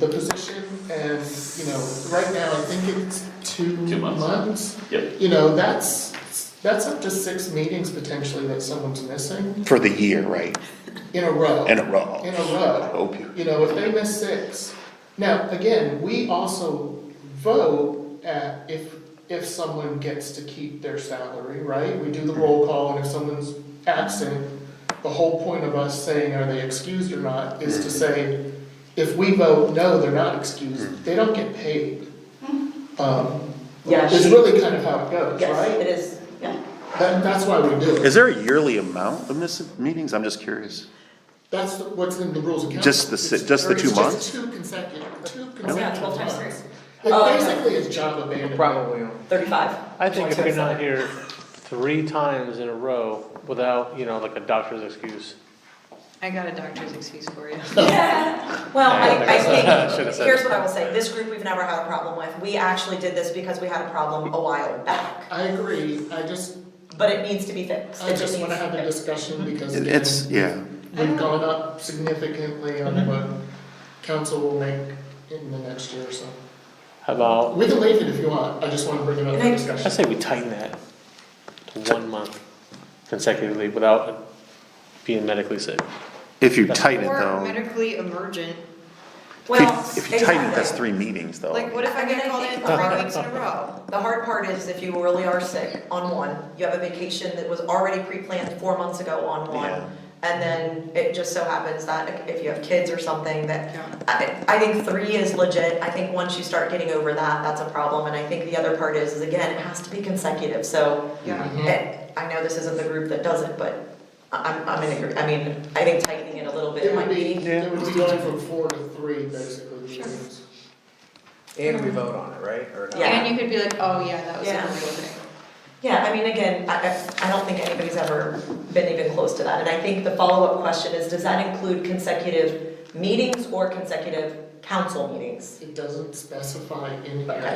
the position and, you know, right now, I think it's two months. Two months. Yep. You know, that's, that's up to six meetings potentially that someone's missing for the year, right? in a row. In a row. In a row. Oh, period. You know, if they miss six. Now, again, we also vote at if, if someone gets to keep their salary, right? We do the roll call and if someone's absent, the whole point of us saying are they excused or not is to say, if we vote no, they're not excused, they don't get paid. Um, Yeah, it's she- really kind of how it goes, Yes, it right? is, yeah. That, that's why we do Is it. there a yearly amount of missing meetings? I'm just curious. That's the- what's in the rules of council. Just the si- It's just the thirty- two it's just months? two consecutive, two It's consecutive not twelve times months. three, It Oh, okay. basically is job abandonment. Probably. not. thirty-five. I think if you're not here three times in a row without, you know, like a doctor's excuse. I got a doctor's excuse for you. Yeah, well, I, I Should've think, said here's it. what I will say, this group, we've never had a problem with, we actually did this because we had a problem a while back, I agree, I just, but it needs to be fixed, I it just just needs wanna to have be a fixed. discussion because It- again, It's, yeah. we've gone up significantly Mm-hmm. on what council will make in the next year or so. How about, We can leave it if you want, I just wanna bring it up And for I- I discussion. say we tighten that to one month consecutively without being medically sick. If you tighten it Or though, medically emergent, if you- Well, if you tighten it, that's exactly. three meetings though. like what if I get called in three weeks in a row? The hard part is if you really are sick on one, you have a vacation that was already pre-planned four months ago on Yeah. one. And then it just so happens that if you have kids or something that, Yeah. I, I think three is legit. I think once you start getting over that, that's a problem. And I think the other part is, is again, it has to be consecutive, so. Yeah. Mm-hmm. eh, I know this isn't the group that does it, but I- I'm, I'm in agree, I mean, I think tightening it a little bit It might would be, be. it would be going from four to three basically. meetings. And we vote on it, right, or not? Yeah. And you could be like, oh yeah, that was a Yeah. real thing. Yeah, I mean, again, I, I, I don't think anybody's ever been even close to that, and I think the follow-up question is, does that include consecutive meetings or consecutive council meetings? It doesn't specify in here, so if we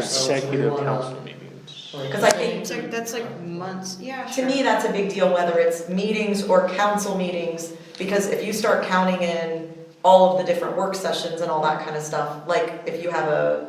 Consecutive wanna. council meetings. like, Because I say- think- It's like, that's like months, yeah, To sure. me, that's a big deal, whether it's meetings or council meetings, because if you start counting in all of the different work sessions and all that kind of stuff, like, if you have a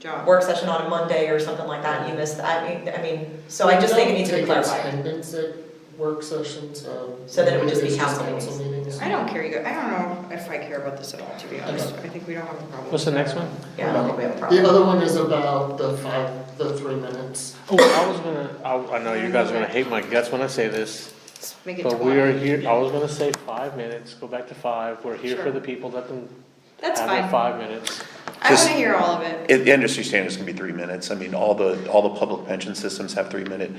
Job. work session on a Monday or something like that, and you miss, that, I mean, I mean, so I just think it needs to be We clarified. don't take attendance at work sessions, um. So then it would just be it's council meetings. I don't care, you go- I don't know if I care about this at all, to be honest, I think we don't have a problem. What's the next one? Yeah, I don't think we have a problem. The other one is about the five, the three minutes. Oh, I was gonna, I, I know you guys are gonna hate my guts when I say this, Let's Make it but we are twelve, here, I was gonna say five minutes, go back to five. We're here for the people, let them have that's their fine, five minutes. I Just- wanna hear all of it. It- The industry standards can be three minutes. I mean, all the, all the public pension systems have three minute,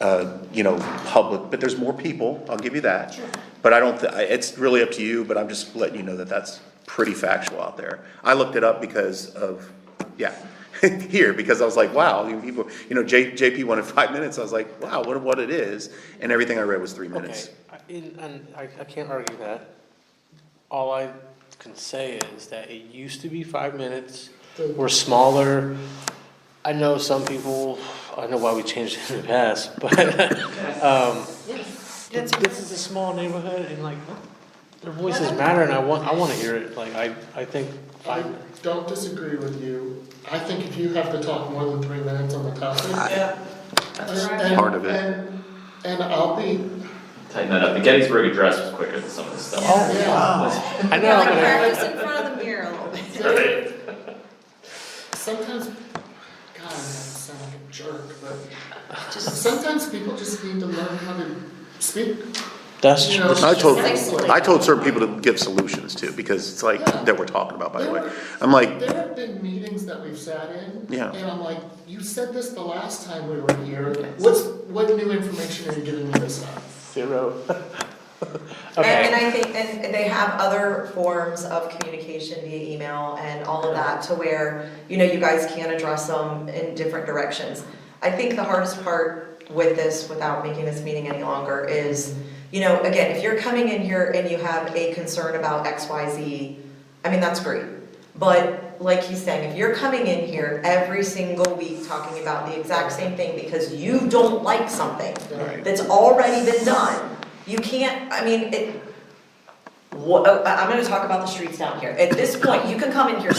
uh, you know, public, but there's more people, I'll give you that. But I don't, thi- I- it's really up to you, but I'm just letting you know that that's pretty factual out there. I looked it up because of, yeah, here, because I was like, wow, you people, you know, J, JP wanted five minutes. I was like, wow, what, what it is. And everything I read was three Okay, minutes. I- and, and I, I can't argue that. All I can say is that it used to be five minutes, we're smaller. I know some people, I know why we changed it in the past, but, um, That's- this is a small neighborhood and like, their voices matter and I want, I wanna hear it, like, I, I think I five, don't disagree with you. I think if you have to talk more than three minutes on the topic. and- and- Part of it. And, and I'll be, Tighten that up. The Gettysburg Address was quicker than some of this stuff. Oh. yeah, I Yeah, know, like but I- practice in front of the mirror a little bit. Right. sometimes, God, I sound like a jerk, but sometimes people just need to learn how to speak, that's you true. know. I told, succinctly. I told certain people to give solutions too, because it's like, that we're talking about, by the way. I'm like, There have been meetings that we've sat in. Yeah. And I'm like, you said this the last time we were here, what's, what new information are you giving me this time? Zero. And, and Okay, I think, and and they have other forms of communication via email and all of that to where, you know, you guys can address them in different directions. I think the hardest part with this, without making this meeting any longer, is, you know, again, if you're coming in here and you have a concern about X, Y, Z, I mean, that's great. But like he's saying, if you're coming in here every single week talking about the exact same thing because you don't like something, Right. that's already been done. You can't, I uh, mean, it, what, I, I'm gonna talk about the streets down here. At this point, you can come in here